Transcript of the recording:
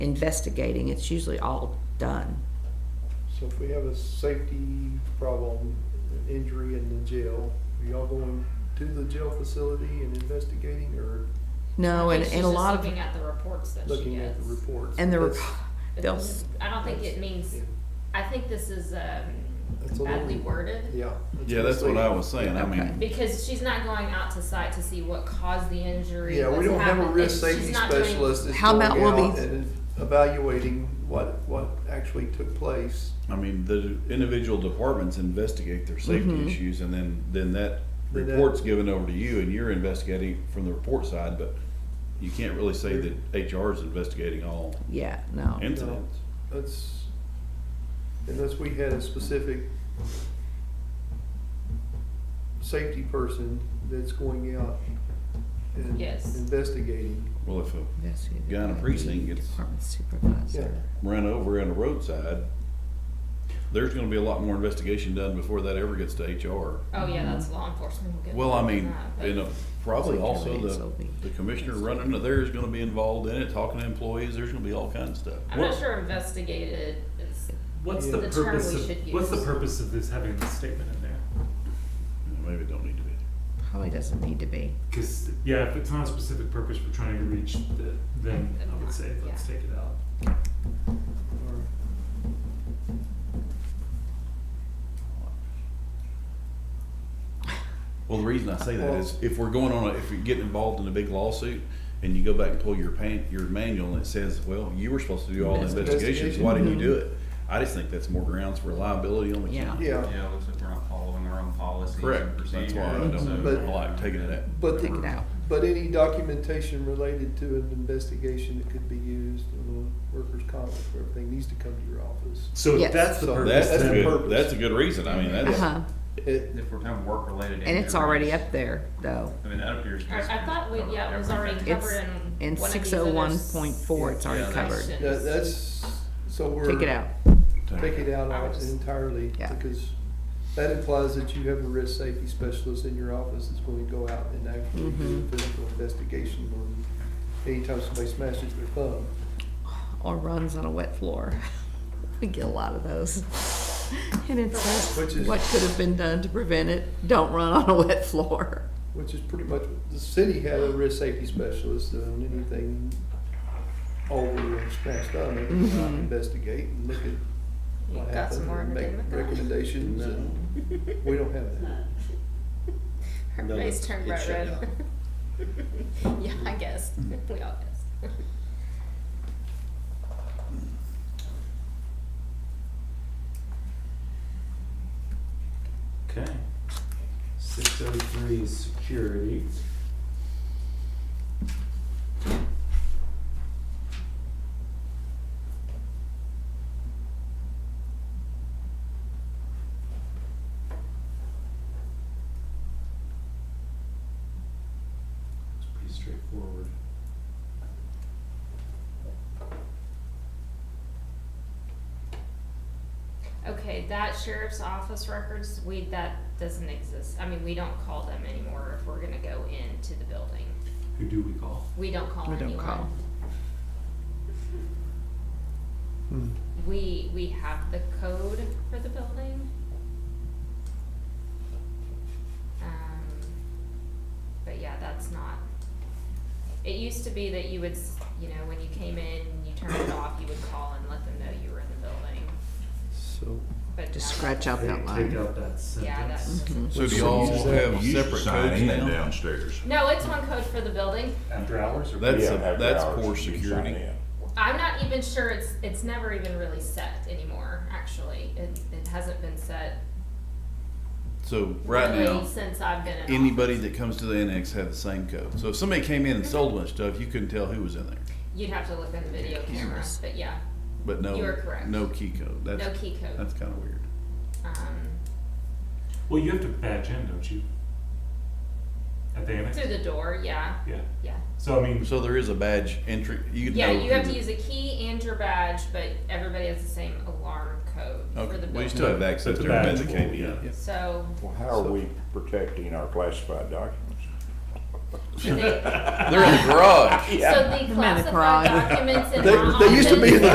investigating, it's usually all done. So if we have a safety problem, an injury in the jail, are y'all going to the jail facility and investigating or No, I and, think she's and a just lot of, Looking at the reports that she looking at gets. the reports? and the, rep- That's- they'll, It's- s- I don't think it means, yeah, I think this is um, That's a badly little- worded. Yeah. Yeah, that's what I misleading. was saying, I mean, Because she's not going out to site to see what caused the injury. Yeah, we what's don't have a happened. risk It's- she's safety not doing- specialist that's How going about we'll out be- and evaluating what, what actually took place. I mean, the individual departments investigate their safety Mhm. issues and then, then that Then that- report's given over to you and you're investigating from the report side, but you can't really say that HR is investigating all yeah, no. incidents. That's, unless we had a specific safety person that's going out and Yes. investigating. Well, if a investigated Guy in a by the precinct gets- Department supervisor. run over on the roadside, there's gonna be a lot more investigation done before that ever gets to HR. Oh, yeah, that's law enforcement will get. Well, I involved in mean, that, but- and uh, probably also So we- the, the commissioner running to there is gonna be involved in it, talking to employees, there's gonna be all kinds of stuff. I'm not sure investigated is, What's Yeah. the The term purpose we of, should what's the use. purpose of this having this statement in there? Maybe it don't need to be. Probably doesn't need to be. Cause, yeah, if it's not a specific purpose we're trying to reach, the, then I would say, let's take it out. or- Well, the reason I say that is if we're going on, a if you're getting involved in a big lawsuit and you go back and pull your pan, your manual and it says, well, you were supposed to do all the investigations, why didn't you do it? I just think that's more grounds for liability on the Yeah. county. Yeah, Yeah, it looks like we're not following our own policies and Correct, procedures. that's why I so- But- don't like taking it out. but Take it out. But any documentation related to an investigation that could be used on a workers' comp or everything needs to come to your office. So if Yes. that's the So purpose, That's That's a the then, purpose. good, that's a good reason, I mean, that's, Uh-huh. It, If we're talking work-related. And it's injuries, already up there, though. I mean, that appears. to I, I thought we, cover yeah, it was already everything. It's covered in in one of six these oh other one point four, it's Yeah, already that's- covered. that, that's, so we're. Take it out. Take it out I would all- just- entirely, Yeah. because that implies that you have a risk safety specialist in your office that's going to go out and actually do Mhm. Mm-hmm. a physical investigation on anytime somebody smashes their thumb. Or runs on a wet floor. We get a lot of those. And it Which says, is- what could have been done to prevent it? Don't run on a wet floor. Which is pretty much, the city had a risk safety specialist on anything over a smashed thumb, they would go out Mhm. and investigate and look at You what Mm-hmm. got some happened more of and a make thing with that? recommendations, and we don't have that. Her No, face no, turned it bright shut red. yeah, I guess. We all guessed. okay. Six oh three is security. It's pretty straightforward. Okay, that sheriff's office records, we, that doesn't exist. I mean, we don't call them anymore if we're gonna go into the building. Who do we call? We don't call We anyone. don't call. Mm-hmm. We, we have the code for the building. Um, but yeah, that's not, it used to be that you would, s- you know, when you came in, you turned it off, you would call and let them know you were in the building, So, but. now Just that- scratch out Mm-hmm. that line. Take out that sentence. Yeah, that doesn't. so do y'all Use that- have separate codes Sign in now? downstairs. No, it's one code for the building. After hours or? That's, Yeah, a- after that's hours, poor you can security. sign in. I'm not even sure it's, it's never even really set anymore, actually. It, it hasn't been set So right now, really since I've been in office. anybody that comes to the annex had the same code. So if somebody came in and sold a bunch of stuff, you couldn't tell who was in there. You'd have to look on the video camera, Cameras. but yeah, But no, You are correct. no key code. That's, no key code. that's kind of weird. Um, Well, you have to badge in, don't you? At the annex? through the door, yeah, Yeah. yeah. So I mean, So there is a badge entry. You could Yeah, know you have who to the- use a key and your badge, but everybody has the same alarm code for Okay, the well, you building. still have access That's to a everybody badge. that came in. yeah. So, Well, how are we protecting our classified documents? They- They're in the garage. So the in the classified garage. documents and They- not they all used to be in the things-